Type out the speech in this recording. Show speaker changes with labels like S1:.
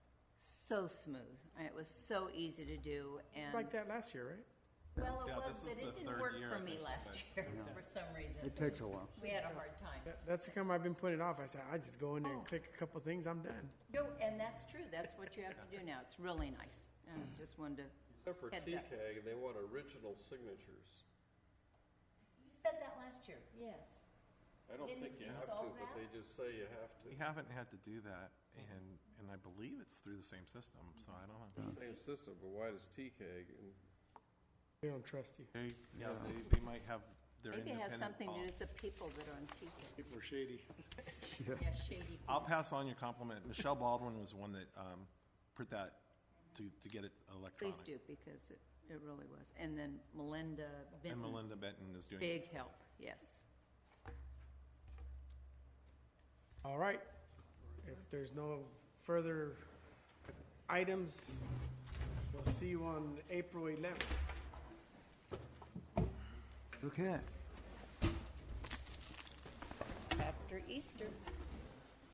S1: so smooth, and it was so easy to do, and,
S2: Like that last year, right?
S1: well, it
S3: Yeah,
S1: was,
S3: this
S1: but
S3: is the
S1: it didn't
S3: third
S1: work
S3: year,
S1: for
S3: I
S1: me
S3: think,
S1: last year, for some reason.
S4: It takes a while.
S1: We had a hard time.
S2: That- That's the time I've been putting it off. I said, I just go in there and click a couple things, I'm done.
S1: No, and that's true, that's what you have to do now, it's really nice, and
S5: Mm.
S1: I just wanted to, you
S6: Except for
S1: Heads up.
S6: TK, they want original signatures.
S1: said that last year, yes.
S6: I don't
S1: Didn't
S6: think you
S1: we
S6: have to,
S1: solve
S6: but
S1: that?
S6: they just say you have
S3: We
S6: to.
S3: haven't had to do that, and, and I believe it's through the same system, so I don't know.
S6: Same system, but why does TK? and-
S2: We don't trust you.
S3: They, yeah, they, they might have their
S1: Maybe it has
S3: independent
S1: something to do
S3: policy.
S1: with the people that are on TV.
S5: People are shady.
S1: Yeah, shady.
S3: I'll pass on your compliment. Michelle Baldwin was one that, um, put that to, to get it electronic.
S1: Please do, because it, it really was. And then Melinda
S3: And
S1: Benton,
S3: Melinda Benton is doing it.
S1: big help, yes.
S2: All right. If there's no further items, we'll see you on April 11th.
S4: Okay.
S1: After Easter.